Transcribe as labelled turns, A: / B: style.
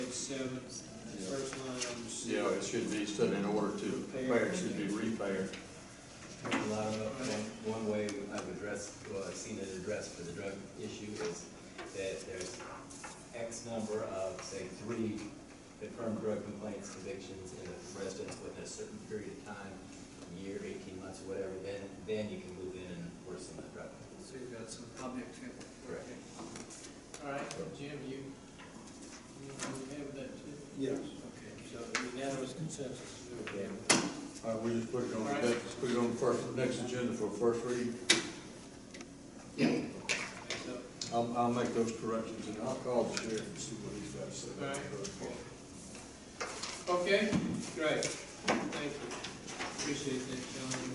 A: seven, the first line on the sheet.
B: Yeah, it should be said in order to repair, it should be repair.
C: A lot of, one, one way I've addressed, well, I've seen it addressed for the drug issue is that there's X number of, say, three confirmed drug complaints, convictions in a residence within a certain period of time, year, eighteen months, or whatever, then, then you can move in and worsen the drug.
A: So you've got some object here.
C: Correct.
A: All right, Jim, you, you okay with that too?
D: Yes.
A: Okay, so unanimous consensus is okay with that.
B: All right, Uh, we just put it on, the next- put it on the first, next agenda for first reading.
A: So,
B: I'll, I'll make those corrections and I'll call the sheriff and see what he's got to say. about the drug court.
A: Okay, great, thank you, appreciate that, John.